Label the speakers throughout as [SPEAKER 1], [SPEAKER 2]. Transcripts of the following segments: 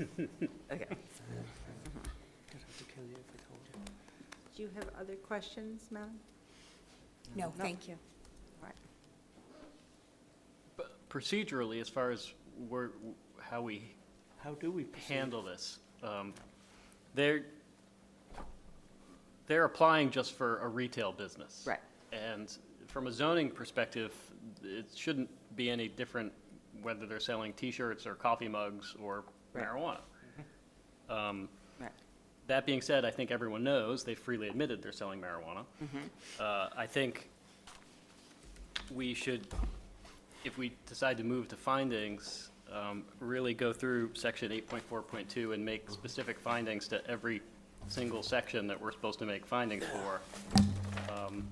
[SPEAKER 1] Okay.
[SPEAKER 2] Do you have other questions, Madam?
[SPEAKER 3] No, thank you.
[SPEAKER 2] All right.
[SPEAKER 4] But Procedurally, as far as we're, how we
[SPEAKER 5] How do we proceed?
[SPEAKER 4] handle this, um, they're, they're applying just for a retail business.
[SPEAKER 1] Right.
[SPEAKER 4] And from a zoning perspective, it shouldn't be any different whether they're selling T-shirts or coffee mugs or
[SPEAKER 1] Right.
[SPEAKER 4] marijuana. Um,
[SPEAKER 1] Right.
[SPEAKER 4] That being said, I think everyone knows, they freely admitted they're selling marijuana. Uh, I think we should, if we decide to move to findings, um, really go through section 8.4.2 and make specific findings to every single section that we're supposed to make findings for. Um,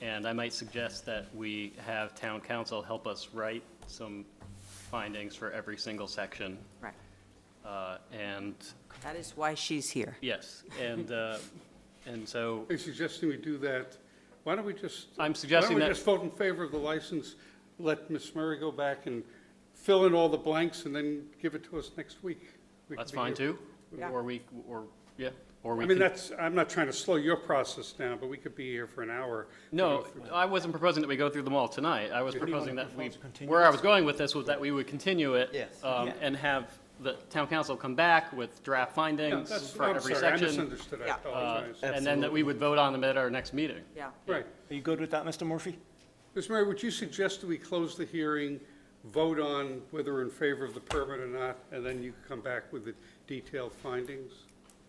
[SPEAKER 4] And I might suggest that we have town council help us write some findings for every single section.
[SPEAKER 1] Right.
[SPEAKER 4] Uh, And
[SPEAKER 1] That is why she's here.
[SPEAKER 4] Yes, and, uh, and so,
[SPEAKER 6] Are you suggesting we do that? Why don't we just?
[SPEAKER 4] I'm suggesting
[SPEAKER 6] Why don't
[SPEAKER 4] that-
[SPEAKER 6] we just vote in favor of the license, let Ms. Murray go back and fill in all the blanks, and then give it to us next week? We can
[SPEAKER 4] that's
[SPEAKER 6] be
[SPEAKER 4] fine
[SPEAKER 6] here.
[SPEAKER 4] too? Or we, or, yeah, or we
[SPEAKER 6] I
[SPEAKER 4] can.
[SPEAKER 6] mean, that's, I'm not trying to slow your process down, but we could be here for an hour. to go
[SPEAKER 4] No,
[SPEAKER 6] through
[SPEAKER 4] I wasn't proposing that we go through them all tonight. I was
[SPEAKER 6] Do you
[SPEAKER 4] proposing that we,
[SPEAKER 5] propose continuing?
[SPEAKER 4] where I was going with this was that we would continue it.
[SPEAKER 5] Yes.
[SPEAKER 4] um,
[SPEAKER 5] Yeah.
[SPEAKER 4] And have the town council come back with draft
[SPEAKER 6] Yeah,
[SPEAKER 4] findings
[SPEAKER 6] that's-
[SPEAKER 4] for every
[SPEAKER 6] I'm sorry, I
[SPEAKER 4] section.
[SPEAKER 6] misunderstood, I
[SPEAKER 1] Yeah.
[SPEAKER 4] uh,
[SPEAKER 6] apologize.
[SPEAKER 4] And then that we would vote on them at our next meeting.
[SPEAKER 1] Yeah.
[SPEAKER 6] Right.
[SPEAKER 5] Are you good with that, Mr. Murphy?
[SPEAKER 6] Ms. Murray, would you suggest that we close the hearing, vote on whether we're in favor of the permit or not, and then you come back with the detailed findings?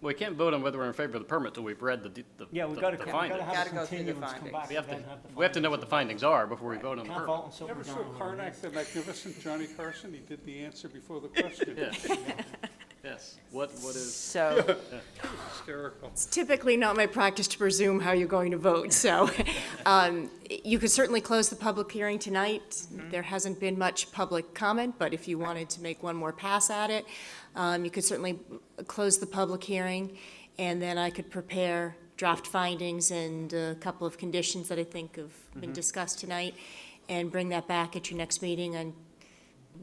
[SPEAKER 4] We can't vote on whether we're in favor of the permit till we've read the, de- the
[SPEAKER 5] Yeah, we
[SPEAKER 4] the-
[SPEAKER 5] gotta,
[SPEAKER 4] the
[SPEAKER 5] we
[SPEAKER 4] findings.
[SPEAKER 5] gotta have
[SPEAKER 1] Gotta
[SPEAKER 5] a
[SPEAKER 1] go through the
[SPEAKER 5] continuance, come
[SPEAKER 1] findings.
[SPEAKER 5] back.
[SPEAKER 4] We have to,
[SPEAKER 5] and have the
[SPEAKER 4] we have to know what the
[SPEAKER 5] findings.
[SPEAKER 4] findings are before we vote on the
[SPEAKER 5] Can't
[SPEAKER 4] permit.
[SPEAKER 5] vote until
[SPEAKER 6] Never
[SPEAKER 5] we're
[SPEAKER 6] saw
[SPEAKER 5] down on the
[SPEAKER 6] Karnak the Magnificent, Johnny Carson, he did the answer before the question.
[SPEAKER 4] Yes, what, what is?
[SPEAKER 1] So,
[SPEAKER 6] Hysterical.
[SPEAKER 7] It's typically not my practice to presume how you're going to vote, so um, you could certainly close the public hearing tonight. There hasn't been much public comment, but if you wanted to make one more pass at it, um, you could certainly close the public hearing, and then I could prepare draft findings and a couple of conditions that I think have been discussed tonight, and bring that back at your next meeting on,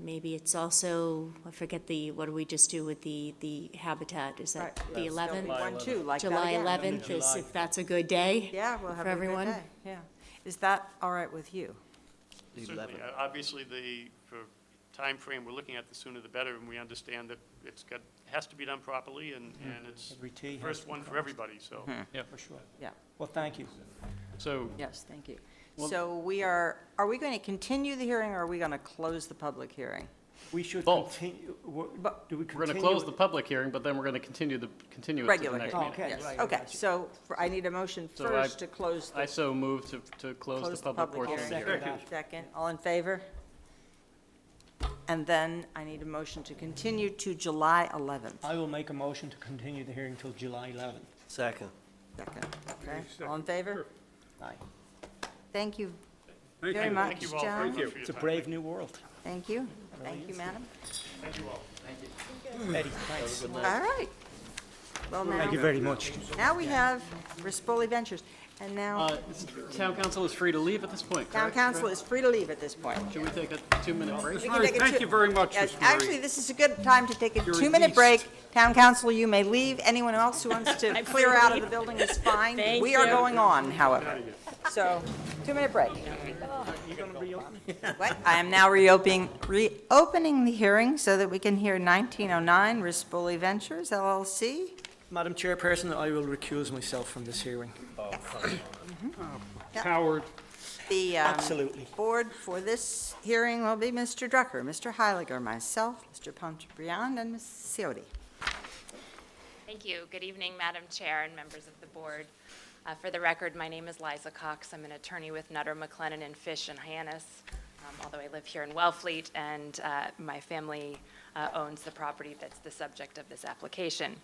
[SPEAKER 7] maybe it's also, I forget the, what do we just do with the, the habitat? Is
[SPEAKER 1] right.
[SPEAKER 7] that the 11th?
[SPEAKER 1] One, two, like that
[SPEAKER 7] July
[SPEAKER 1] again.
[SPEAKER 7] 11th is, if that's a good day.
[SPEAKER 2] Yeah, we'll have
[SPEAKER 7] For
[SPEAKER 2] a good
[SPEAKER 7] everyone.
[SPEAKER 2] day. Yeah. Is that all right with you?
[SPEAKER 8] Certainly, Uh, obviously, the, for frame we're looking at, the sooner the better, and we understand that it's got, has to be done properly, and, and it's
[SPEAKER 5] Every T has to
[SPEAKER 8] first
[SPEAKER 5] be
[SPEAKER 8] one for
[SPEAKER 5] crossed.
[SPEAKER 8] everybody, so.
[SPEAKER 5] For sure.
[SPEAKER 2] Yeah.
[SPEAKER 5] Well, thank you.
[SPEAKER 4] So
[SPEAKER 2] Yes, thank you. So we are, are we going to continue the hearing or are we going to close the public hearing?
[SPEAKER 5] We should
[SPEAKER 4] Both.
[SPEAKER 5] continue, wha-
[SPEAKER 2] But-
[SPEAKER 5] do we
[SPEAKER 4] We're
[SPEAKER 5] continue?
[SPEAKER 4] going to close the public hearing, but then we're going to continue the, continue it to the
[SPEAKER 2] Regular
[SPEAKER 4] next
[SPEAKER 2] hearing.
[SPEAKER 5] Oh,
[SPEAKER 4] meeting.
[SPEAKER 5] okay,
[SPEAKER 2] Yes.
[SPEAKER 5] right, I
[SPEAKER 2] Okay,
[SPEAKER 5] got you.
[SPEAKER 2] so for- I need a motion
[SPEAKER 4] So I-
[SPEAKER 2] first to close
[SPEAKER 4] I
[SPEAKER 2] the,
[SPEAKER 4] so move to, to close the public portion of the
[SPEAKER 2] hearing.
[SPEAKER 4] hearing.
[SPEAKER 5] Second.
[SPEAKER 2] Second, all in favor? And then I need a motion to continue to July 11th.
[SPEAKER 5] I will make a motion to continue the hearing till July 11th.
[SPEAKER 9] Second.
[SPEAKER 2] Second, okay, all in favor?
[SPEAKER 5] Aye.
[SPEAKER 2] Thank you
[SPEAKER 6] Thank
[SPEAKER 2] very
[SPEAKER 6] you.
[SPEAKER 2] much,
[SPEAKER 8] Thank you all very
[SPEAKER 2] John.
[SPEAKER 8] much for your
[SPEAKER 5] It's a
[SPEAKER 8] time.
[SPEAKER 5] brave new world.
[SPEAKER 2] Thank you, thank you, madam.
[SPEAKER 5] Eddie, thanks.
[SPEAKER 2] All right. Well,
[SPEAKER 5] Thank you
[SPEAKER 2] now,
[SPEAKER 5] very much.
[SPEAKER 2] now we have Rispoli Ventures, and now
[SPEAKER 4] Uh, is- Town council is free to leave at this point,
[SPEAKER 2] town
[SPEAKER 4] correct?
[SPEAKER 2] council is free to leave at this point.
[SPEAKER 4] Should we take a two-minute break?
[SPEAKER 2] We can
[SPEAKER 6] All right,
[SPEAKER 2] take a
[SPEAKER 6] thank
[SPEAKER 2] two-
[SPEAKER 6] you very much,
[SPEAKER 2] Yes,
[SPEAKER 6] Ms. Murray.
[SPEAKER 2] Actually, this is a good time to take a
[SPEAKER 6] You're
[SPEAKER 2] two-minute break.
[SPEAKER 6] released.
[SPEAKER 2] Town council, you may leave. Anyone else who wants to clear out of the building is fine. We are going on, however. So, two-minute break. What? I am now reopening, reopening the hearing so that we can hear 1909 Rispoli Ventures LLC.
[SPEAKER 5] Madam Chairperson, I will recuse myself from this hearing.
[SPEAKER 6] Howard,
[SPEAKER 2] The um,
[SPEAKER 5] Absolutely.
[SPEAKER 2] board for this hearing will be Mr. Drucker, Mr. Heiliger, myself, Mr. Ponchabrian, and Ms. Seody.
[SPEAKER 10] Thank you. Good evening, Madam Chair and members of the board. Uh, For the record, my name is Liza Cox. I'm an attorney with Nutter, McLennan, and Fish in Hyannis, um, although I live here in Wellfleet, and uh, my family uh, owns the property that's the subject of this application.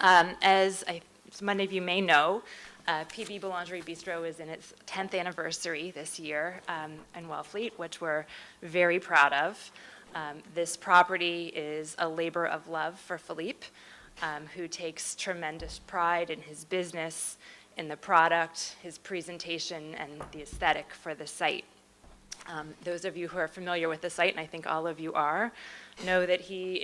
[SPEAKER 10] Um, As I- as many of you may know, uh, PB Boulangerie Bistro is in its 10th anniversary this year um, in Wellfleet, which we're very proud of. Um, This property is a labor of love for Philippe, um, who takes tremendous pride in his business, in the product, his presentation, and the aesthetic for the site. Um, Those of you who are familiar with the site, and I think all of you are, know that he